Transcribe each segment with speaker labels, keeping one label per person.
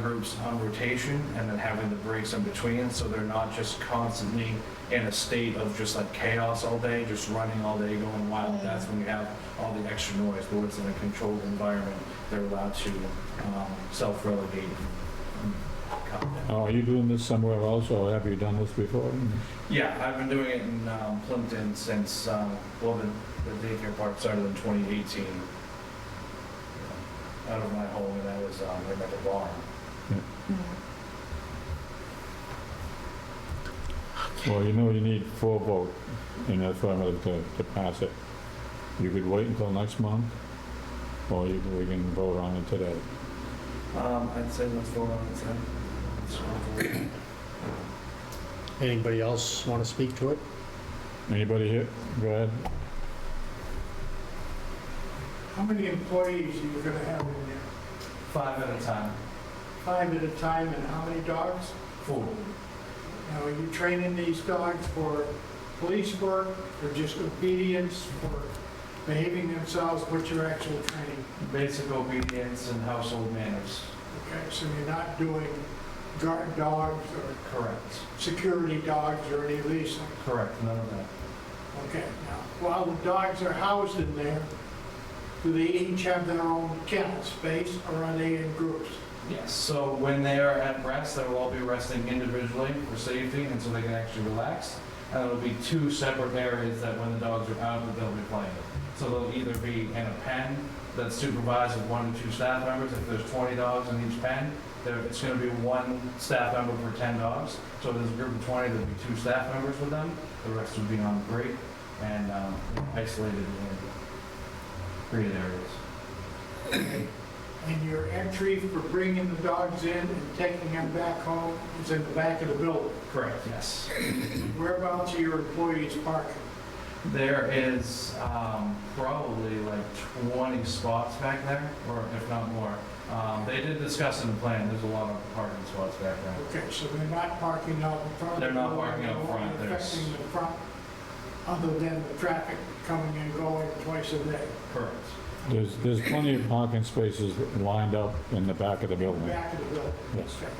Speaker 1: groups on rotation and then having the breaks in between, so they're not just constantly in a state of just like chaos all day, just running all day, going wild. That's when you have all the extra noise, but when it's in a controlled environment, they're allowed to um, self-relegate and calm down.
Speaker 2: Oh, Are you doing this somewhere else, or have you done this before?
Speaker 1: Yeah, I've been doing it in um, Plimpton since, um, well, the, the daycare park started in 2018. Out of my home, and I was um, right by the barn.
Speaker 2: Well, you know you need four vote in the affirmative to, to pass it. You could wait until next month, or you, we can vote on it today.
Speaker 1: Um, I'd say let's vote on it then. Let's vote.
Speaker 3: Anybody else want to speak to it?
Speaker 2: Anybody here? Go ahead.
Speaker 4: How many employees are you gonna have in there?
Speaker 1: Five at a time.
Speaker 4: Five at a time, and how many dogs?
Speaker 1: Four.
Speaker 4: Now, are you training these dogs for police work, for just obedience, for behaving themselves? What's your actual training?
Speaker 1: Basic obedience and household manners.
Speaker 4: Okay, so you're not doing guard dogs or
Speaker 1: Correct.
Speaker 4: security dogs or any leasing?
Speaker 1: Correct. None of that.
Speaker 4: Okay, now, while the dogs are housed in there, do they each have their own kennel space, or are they in groups?
Speaker 1: Yes. So when they are at rest, they will all be resting individually for safety, and so they can actually relax. And it'll be two separate areas that when the dogs are out, that they'll be playing. So they'll either be in a pen that's supervised with one or two staff members. If there's 20 dogs in each pen, there, it's going to be one staff member per 10 dogs. So if there's a group of 20, there'll be two staff members with them. The rest would be on break and um, isolated in created areas.
Speaker 4: And your entry for bringing the dogs in and taking them back home is in the back of the building.
Speaker 1: Correct. Yes.
Speaker 4: Whereabouts are your employees parking?
Speaker 1: There is um, probably like 20 spots back there, or if not more. Um, They did discuss in the plan, there's a lot of parking spots back there.
Speaker 4: Okay, so they're not parking out in front of the
Speaker 1: They're not
Speaker 4: building,
Speaker 1: parking out
Speaker 4: they're
Speaker 1: front,
Speaker 4: only
Speaker 1: there's-
Speaker 4: Affecting the front, other than the traffic coming and going twice a day.
Speaker 1: Correct.
Speaker 2: There's, there's plenty of parking spaces lined up in the back of the building.
Speaker 4: Back of the building.
Speaker 2: Yes.
Speaker 4: Okay.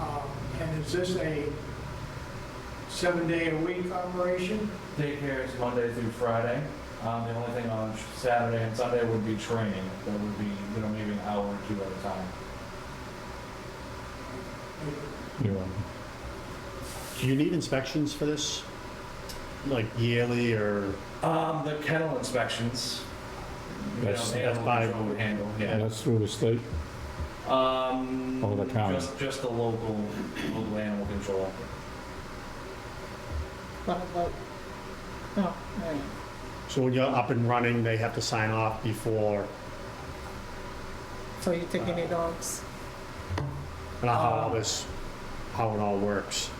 Speaker 4: Um, And is this a seven-day-a-week operation?
Speaker 1: Daycare is Monday through Friday. Um, The only thing on Saturday and Sunday would be training. That would be, you know, maybe an hour or two at a time.
Speaker 2: You know.
Speaker 3: Do you need inspections for this? Like yearly or,
Speaker 1: Um, The kennel inspections. you know,
Speaker 2: That's-
Speaker 1: the
Speaker 3: that's
Speaker 1: animal
Speaker 3: by-
Speaker 1: control would Handle, yeah.
Speaker 2: And that's through the state.
Speaker 1: Um,
Speaker 2: All the county.
Speaker 1: Just, just the local, local animal control.
Speaker 3: so when you're up and running, they have to sign off before,
Speaker 5: So you take any dogs?
Speaker 3: and how all this, how it all works.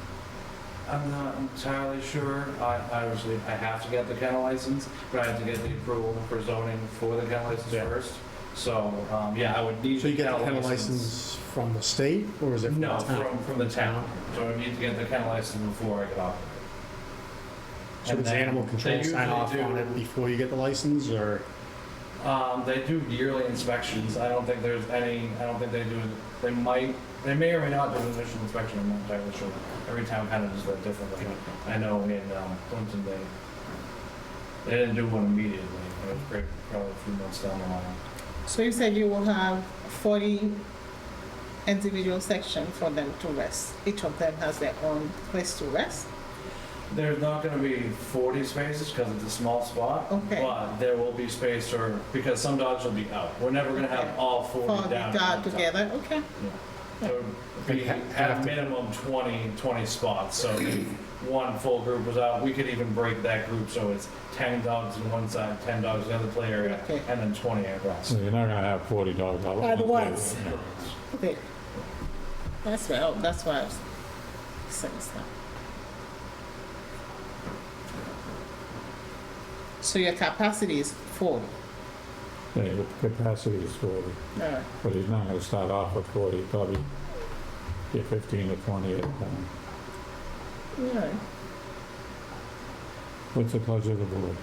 Speaker 1: I'm not entirely sure. I, I obviously, I have to get the kennel license, but I have to get the approval for zoning for the kennel license
Speaker 3: Yeah.
Speaker 1: first. So, um, yeah, I would need.
Speaker 3: So you get a
Speaker 1: the
Speaker 3: kennel license from the state, or is it from the
Speaker 1: No,
Speaker 3: town?
Speaker 1: from, from the town. So I need to get the kennel license before I get off.
Speaker 3: So does animal control sign off on it before you get the license, or?
Speaker 1: Um, they do yearly inspections. I don't think there's any, I don't think they do, they might, they may or may not do an initial inspection, I'm not entirely sure. Every town kind of does that differently. I know in, um, Clinton, they, they didn't do one immediately. It was pretty- probably a few months down the line.
Speaker 5: So you said you will have forty individual section for them to rest. Each of them has their own place to rest.
Speaker 1: There's not gonna be forty spaces because it's a small spot.
Speaker 5: Okay.
Speaker 1: But there will be space for, because some dogs will be out. We're never gonna have
Speaker 5: Okay.
Speaker 1: all forty
Speaker 5: All
Speaker 1: down.
Speaker 5: the
Speaker 1: at one time.
Speaker 5: dog together, okay?
Speaker 1: There would be
Speaker 3: ha-
Speaker 1: at a minimum 20, 20 spots, so if one full group was out, we could even break that group, so it's 10 dogs on one side, 10 dogs on the other play area,
Speaker 5: Okay.
Speaker 1: and then 20 at
Speaker 2: So
Speaker 1: rest.
Speaker 2: you're not gonna have 40 dogs out.
Speaker 5: At
Speaker 2: there.
Speaker 5: once. Okay. That's well, that's why I was saying that. So your capacity is forty,
Speaker 2: Yeah, the capacity is 40,
Speaker 5: all right.
Speaker 2: but he's not gonna start off with 40, probably get 15 or 20 at a time.
Speaker 5: All right.
Speaker 2: What's the pleasure of the board?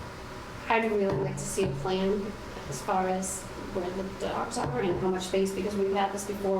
Speaker 6: I'd really like to see a plan as far as where the dogs are and how much space, because we've had this before